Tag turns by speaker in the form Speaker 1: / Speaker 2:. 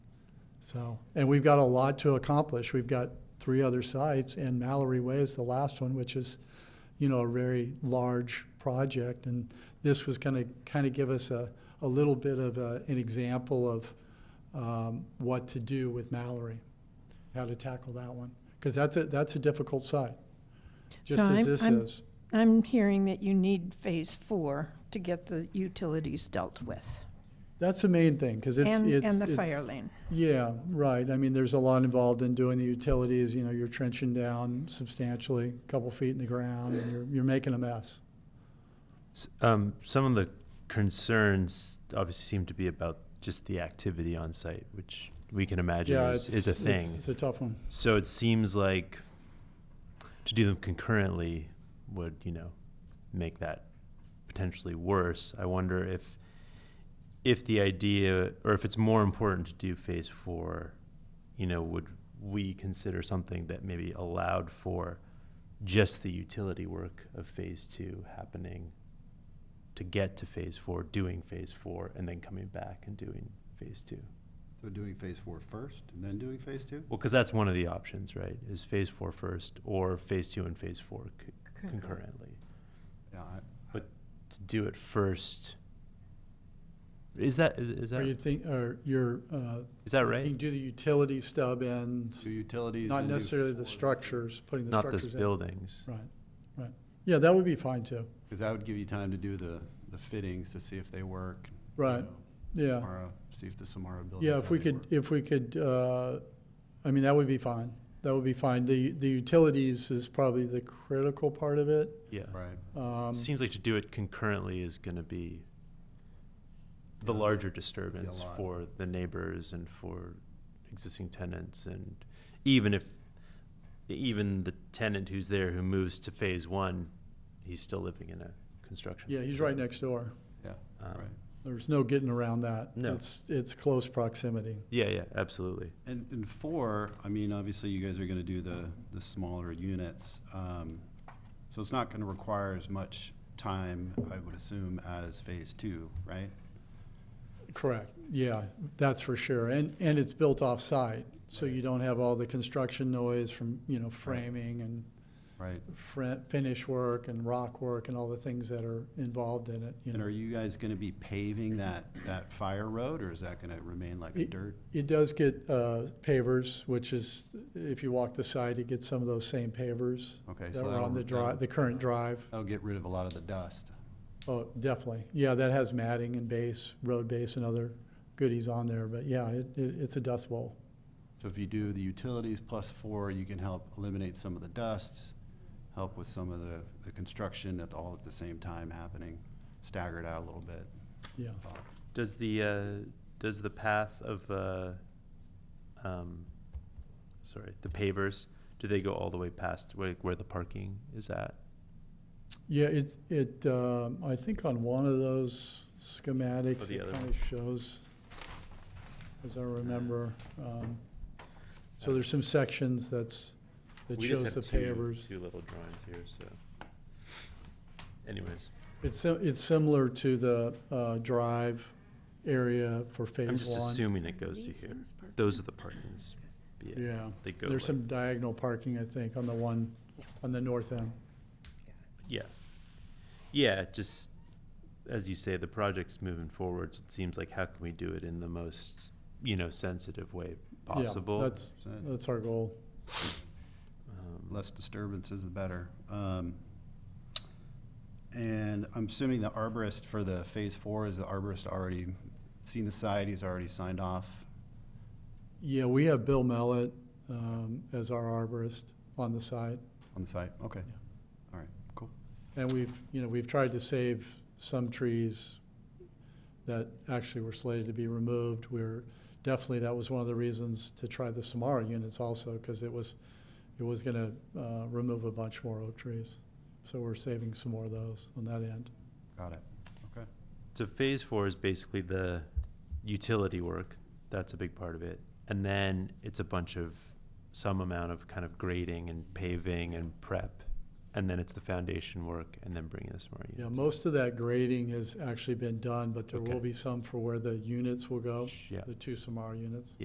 Speaker 1: So, and we've got a lot to accomplish. We've got three other sites, and Mallory Way is the last one, which is, you know, a very large project. And this was going to kind of give us a, a little bit of a, an example of um, what to do with Mallory, how to tackle that one, because that's a that's a difficult site, just as
Speaker 2: So I'm-
Speaker 1: this
Speaker 2: I'm-
Speaker 1: is.
Speaker 2: I'm hearing that you need phase four to get the utilities dealt with.
Speaker 1: That's the main thing, because it's
Speaker 2: And,
Speaker 1: it's
Speaker 2: and the
Speaker 1: it's-
Speaker 2: fire lane.
Speaker 1: Yeah, right. I mean, there's a lot involved in doing the utilities, you know, you're trenching down substantially, a couple feet in the ground, and you're, you're making a mess.
Speaker 3: S- Um, some of the concerns obviously seem to be about just the activity on site, which we can imagine
Speaker 1: Yeah,
Speaker 3: is, is a
Speaker 1: it's-
Speaker 3: thing.
Speaker 1: It's, it's a tough one.
Speaker 3: so it seems like to do them concurrently would, you know, make that potentially worse. I wonder if if the idea or if it's more important to do phase four, you know, would we consider something that maybe allowed for just the utility work of phase two happening to get to phase four, doing phase four, and then coming back and doing phase two?
Speaker 4: So doing phase four first and then doing phase two?
Speaker 3: Well, because that's one of the options, right? Is phase four first or phase two and phase four c- concurrently?
Speaker 4: Yeah, I-
Speaker 3: To do it first, is that is, is
Speaker 1: Or you
Speaker 3: that
Speaker 1: think, or you're, uh,
Speaker 3: is that
Speaker 1: you can
Speaker 3: right?
Speaker 1: do the utility stub and
Speaker 4: do utilities.
Speaker 1: not
Speaker 4: and do
Speaker 1: necessarily the
Speaker 4: four.
Speaker 1: structures, putting the
Speaker 3: Not those
Speaker 1: structures in.
Speaker 3: buildings.
Speaker 1: Right, right. Yeah, that would be fine too.
Speaker 4: Cause that would give you time to do the, the fittings to see if they work. you
Speaker 1: Right,
Speaker 4: know,
Speaker 1: yeah.
Speaker 4: Samara, see if the Samara building.
Speaker 1: Yeah, if we could, if we could, uh, I mean, that would be fine. That would be fine. The, the utilities is probably the critical part of it.
Speaker 3: Yeah,
Speaker 4: Right.
Speaker 1: Um,
Speaker 3: it seems like to do it concurrently is going to be the
Speaker 4: Yeah.
Speaker 3: larger disturbance
Speaker 4: lot.
Speaker 3: for the neighbors and for existing tenants, and even if even the tenant who's there who moves to phase one, he's still living in a construction.
Speaker 1: Yeah, he's right
Speaker 3: zone.
Speaker 1: next door.
Speaker 4: Yeah,
Speaker 3: Um,
Speaker 4: right.
Speaker 1: There's no getting around that.
Speaker 3: No.
Speaker 1: It's, it's close proximity.
Speaker 3: Yeah, yeah, absolutely.
Speaker 4: And, and four, I mean, obviously you guys are gonna do the, the smaller units. Um, so it's not gonna require as much time, I would assume, as phase two, right?
Speaker 1: Correct, yeah, that's for sure. And, and it's built off-site, so you don't have all the construction noise from, you know, framing and
Speaker 4: Right?
Speaker 1: fr- finish work and rock work and all the things that are involved in it, you
Speaker 4: And are
Speaker 1: know.
Speaker 4: you guys gonna be paving that, that fire road or is that gonna remain like a
Speaker 1: It-
Speaker 4: dirt?
Speaker 1: It does get uh, pavers, which is, if you walk the site, you get some of those same pavers
Speaker 4: Okay. so
Speaker 1: that were
Speaker 4: that'll-
Speaker 1: on the drive, the current drive.
Speaker 4: That'll get rid of a lot of the dust.
Speaker 1: Oh, definitely. Yeah, that has matting and base, road base and other goodies on there, but yeah, it, it, it's a dust bowl.
Speaker 4: So if you do the utilities plus four, you can help eliminate some of the dust, help with some of the, the construction at all at the same time happening, staggered out a little bit.
Speaker 1: Yeah,
Speaker 3: Does the uh, does the path of uh, um, sorry, the pavers, do they go all the way past where, where the parking is at?
Speaker 1: yeah. It it um, I think on one of those schematics
Speaker 3: Or Oh, the
Speaker 1: it
Speaker 3: other
Speaker 1: kind of shows, as I remember. Um, so there's some sections that's that
Speaker 3: we
Speaker 1: shows
Speaker 3: just
Speaker 1: the
Speaker 3: have two,
Speaker 1: pavers.
Speaker 3: Two little drawings here, so. Anyways,
Speaker 1: It's si- it's similar to the uh, drive area for phase
Speaker 3: I'm just
Speaker 1: one.
Speaker 3: assuming it goes to here. Those are the parkings. Yeah,
Speaker 1: yeah.
Speaker 3: they go.
Speaker 1: There's
Speaker 3: like-
Speaker 1: some diagonal parking, I think, on the one, on the north end.
Speaker 3: Yeah, yeah. Just as you say, the project's moving forward. It seems like how can we do it in the most you know sensitive way
Speaker 1: Yeah,
Speaker 3: possible?
Speaker 1: That's,
Speaker 4: So
Speaker 1: that's our goal.
Speaker 3: um,
Speaker 4: Less disturbances, the better. Um, And I'm assuming the arborist for the phase four, is the arborist already seen the site, he's already signed off?
Speaker 1: Yeah, we have Bill Mallet um, as our arborist on the site.
Speaker 4: On the site, okay.
Speaker 1: Yeah.
Speaker 4: All right, cool.
Speaker 1: And we've, you know, we've tried to save some trees that actually were slated to be removed. We're, definitely, that was one of the reasons to try the Samara units also, because it was, it was gonna uh, remove a bunch more oak trees. So we're saving some more of those on that end.
Speaker 4: Got it. Okay.
Speaker 3: So phase four is basically the utility work. That's a big part of it. And then it's a bunch of some amount of kind of grading and paving and prep. And then it's the foundation work and then bringing this more.
Speaker 1: Yeah, most of that grading has actually been done, but there
Speaker 3: Okay.
Speaker 1: will be some for where the units will go,
Speaker 3: Yeah.
Speaker 1: the two Samara units.